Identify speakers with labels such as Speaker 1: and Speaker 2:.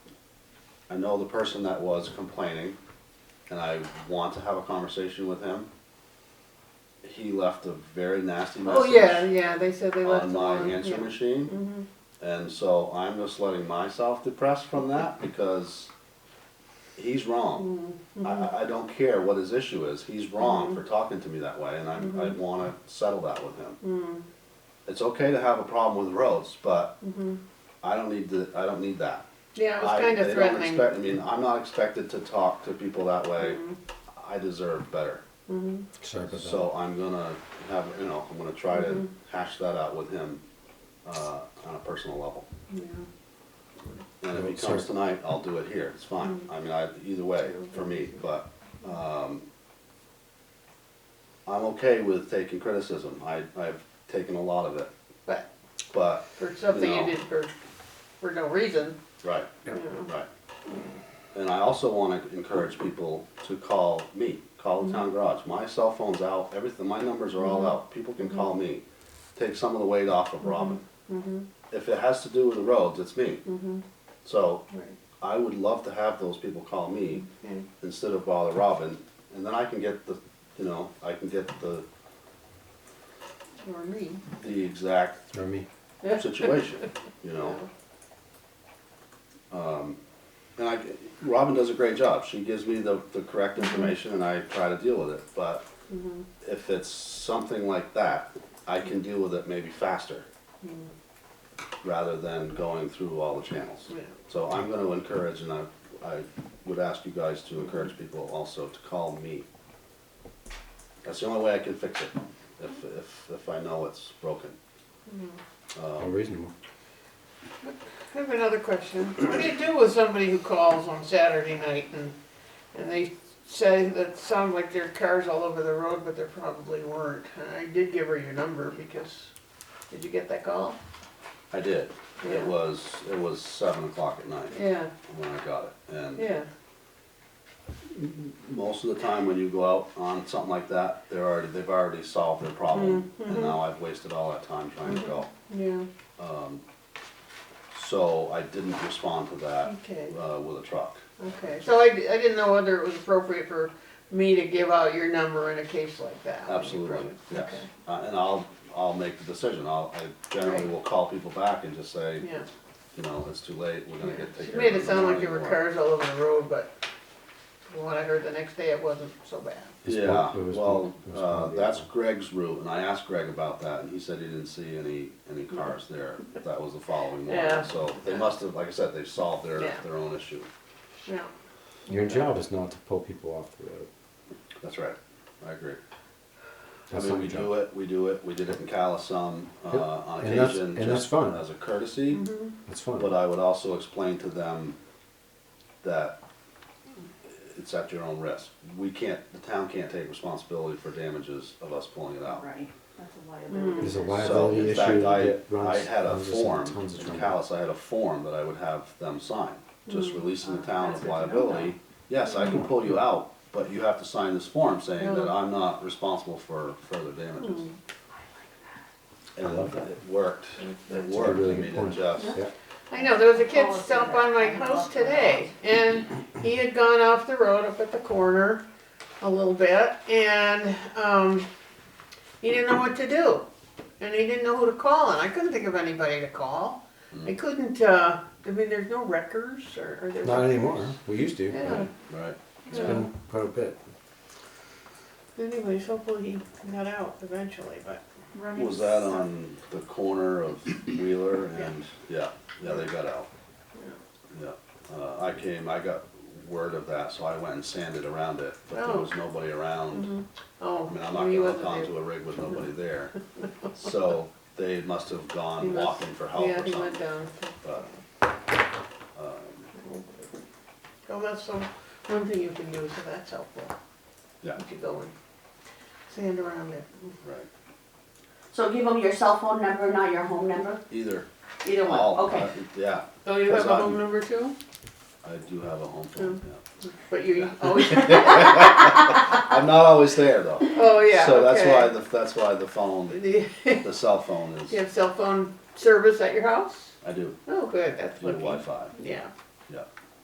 Speaker 1: I know the person that was complaining, and I want to have a conversation with him. He left a very nasty message
Speaker 2: Oh, yeah, yeah, they said they left
Speaker 1: on
Speaker 2: it
Speaker 1: my
Speaker 2: on,
Speaker 1: answer
Speaker 2: yeah.
Speaker 1: machine.
Speaker 2: Mhm.
Speaker 1: And so I'm just letting myself depress from that because he's wrong.
Speaker 2: Mm-hmm.
Speaker 1: I- I, I don't care what his issue is. He's wrong for talking to me that way, and I, I
Speaker 2: Mm-hmm.
Speaker 1: want to settle that with him.
Speaker 2: Mm.
Speaker 1: It's okay to have a problem with roads, but
Speaker 2: Mm-hmm.
Speaker 1: I don't need to. I don't need that.
Speaker 2: Yeah,
Speaker 1: I-
Speaker 2: it was kind of
Speaker 1: they don't
Speaker 2: threatening.
Speaker 1: expect- I mean, I'm not expected to talk to people that way.
Speaker 2: Mm-hmm.
Speaker 1: I deserve better.
Speaker 3: Sorry about that.
Speaker 1: So I'm gonna have, you know, I'm gonna try
Speaker 2: Mm-hmm.
Speaker 1: to hash that out with him uh, on a personal level.
Speaker 2: Yeah.
Speaker 1: And if he
Speaker 3: Sure.
Speaker 1: comes tonight, I'll do it here, it's fine,
Speaker 2: Mm-hmm.
Speaker 1: I mean, I, either way, for me, but, um, I'm okay with taking criticism, I, I've taken a lot of it,
Speaker 2: But
Speaker 1: but,
Speaker 2: for something
Speaker 1: No.
Speaker 2: you did for, for no reason,
Speaker 1: right,
Speaker 2: you know.
Speaker 1: right. And I also wanna encourage people to call me, call the town garage, my cell phone's out, everything, my numbers are all out, people can call me. Take some of the weight off of Robin. If it has to do with the roads, it's me. So,
Speaker 2: Right,
Speaker 1: I would love to have those people call me
Speaker 2: okay.
Speaker 1: instead of bother Robin, and then I can get the, you know, I can get the,
Speaker 2: Or me.
Speaker 1: the exact
Speaker 3: Or me.
Speaker 1: situation, you know? Um, and I, Robin does a great job, she gives me the, the correct information and I try to deal with it, but if it's something like that, I can deal with it maybe faster, rather than going through all the channels.
Speaker 2: Yeah.
Speaker 1: So I'm gonna encourage, and I, I would ask you guys to encourage people also to call me. That's the only way I can fix it, if, if, if I know it's broken. uh,
Speaker 3: All reasonable.
Speaker 2: I have another question. What do you do with somebody who calls on Saturday night and, and they say that sound like their car's all over the road, but there probably weren't? And I did give her your number because, did you get that call?
Speaker 1: I did,
Speaker 2: Yeah.
Speaker 1: it was, it was seven o'clock at night
Speaker 2: Yeah,
Speaker 1: when I got it, and
Speaker 2: yeah,
Speaker 1: most of the time when you go out on something like that, they're already, they've already solved their problem,
Speaker 2: Mm-hmm.
Speaker 1: and now I've wasted all that time trying to go. Um,
Speaker 2: yeah,
Speaker 1: So I didn't respond to that,
Speaker 2: Okay.
Speaker 1: uh, with a truck.
Speaker 2: okay. So I, di- I didn't know whether it was appropriate for me to give out your number in a case like that.
Speaker 1: Absolutely, yes.
Speaker 2: Okay.
Speaker 1: Uh, and I'll, I'll make the decision. I'll, I generally
Speaker 2: Right.
Speaker 1: will call people back and just say,
Speaker 2: Yeah.
Speaker 1: you know, it's too late, we're gonna get
Speaker 2: She
Speaker 1: taken.
Speaker 2: made it sound like there were cars all over the road, but from what I heard the next day, it wasn't so bad.
Speaker 3: It's
Speaker 1: Yeah,
Speaker 3: pol- it was
Speaker 1: well,
Speaker 3: pol- it was
Speaker 1: uh,
Speaker 3: pol-
Speaker 1: that's Greg's route, and I asked Greg about that, and he said he didn't see any, any cars there. That was the following
Speaker 2: Yeah.
Speaker 1: morning, so they must have, like I said, they solved their,
Speaker 2: Yeah.
Speaker 1: their own issue.
Speaker 2: Yeah.
Speaker 3: Your job is not to pull people off the road.
Speaker 1: That's right, I agree. I
Speaker 3: That's
Speaker 1: mean,
Speaker 3: not
Speaker 1: we
Speaker 3: your job.
Speaker 1: do it, we do it, we did it in Callisum, uh,
Speaker 3: Yep.
Speaker 1: on
Speaker 3: And that's-
Speaker 1: occasion,
Speaker 3: and that's
Speaker 1: just
Speaker 3: fine.
Speaker 1: as a courtesy.
Speaker 2: Mm-hmm.
Speaker 3: That's fine.
Speaker 1: But I would also explain to them that it's at your own risk. We can't, the town can't take responsibility for damages of us pulling it out.
Speaker 4: Oh, Right, that's a liability.
Speaker 3: There's a
Speaker 1: So
Speaker 3: liability
Speaker 1: in
Speaker 3: issue
Speaker 1: fact, I,
Speaker 3: that runs.
Speaker 1: I had a
Speaker 3: runs us into
Speaker 1: form,
Speaker 3: tons of
Speaker 1: in
Speaker 3: trouble.
Speaker 1: Callis, I had a form that I would have them sign, just releasing the
Speaker 4: Uh,
Speaker 1: town
Speaker 4: that's
Speaker 1: of
Speaker 4: good to know
Speaker 1: liability. Yes, I can pull you out, but you have to sign this form saying that
Speaker 2: Yeah.
Speaker 1: I'm not responsible for further damages. And
Speaker 3: love that.
Speaker 1: it worked, it
Speaker 3: a
Speaker 1: worked, I
Speaker 3: really good
Speaker 1: mean, it
Speaker 3: point.
Speaker 1: just,
Speaker 3: Yeah.
Speaker 2: I know, there was a kid stop on my house today, and he had gone off the road up at the corner a little bit, and, um, he didn't know what to do. And he didn't know who to call, and I couldn't think of anybody to call. I couldn't, uh, I mean, there's no wreckers, or, or there.
Speaker 3: Not anymore. We used to.
Speaker 2: Yeah.
Speaker 3: but
Speaker 1: right.
Speaker 3: It's been quite a bit.
Speaker 2: Anyways, hopefully he got out eventually, but.
Speaker 4: Running
Speaker 1: Was that
Speaker 4: some-
Speaker 1: on the corner of Wheeler and, yeah, yeah, they got out. Yeah, uh, I came, I got word of that, so I went and sanded around it, but there
Speaker 2: Oh.
Speaker 1: was nobody around.
Speaker 2: Oh,
Speaker 1: I mean, I'm not
Speaker 2: he
Speaker 1: gonna
Speaker 2: wasn't
Speaker 1: hook
Speaker 2: there.
Speaker 1: onto a rig with nobody there. So they must have
Speaker 2: He
Speaker 1: gone
Speaker 2: must-
Speaker 1: walking for help
Speaker 2: Yeah,
Speaker 1: or
Speaker 2: he went
Speaker 1: something,
Speaker 2: down.
Speaker 1: but,
Speaker 2: So that's some, one thing you can do, so that's helpful,
Speaker 1: yeah,
Speaker 2: if you go and sand around it.
Speaker 1: right.
Speaker 4: So give them your cell phone number, not your home number?
Speaker 1: Either,
Speaker 4: Either one,
Speaker 1: all,
Speaker 4: okay.
Speaker 1: uh, yeah,
Speaker 2: Oh, you have
Speaker 1: That's
Speaker 2: a
Speaker 1: not-
Speaker 2: home number too?
Speaker 1: I do have a home
Speaker 2: Mm.
Speaker 1: phone, yeah.
Speaker 2: But you oh, always,
Speaker 1: I'm not always there though.
Speaker 2: oh, yeah,
Speaker 1: So that's why,
Speaker 2: okay.
Speaker 1: the that's why the phone,
Speaker 2: Do you-
Speaker 1: the cell phone
Speaker 2: you
Speaker 1: is,
Speaker 2: have cell phone service at your house?
Speaker 1: I do,
Speaker 2: Oh, good, that's
Speaker 1: do
Speaker 2: lucky.
Speaker 1: Wi-Fi.
Speaker 2: Yeah,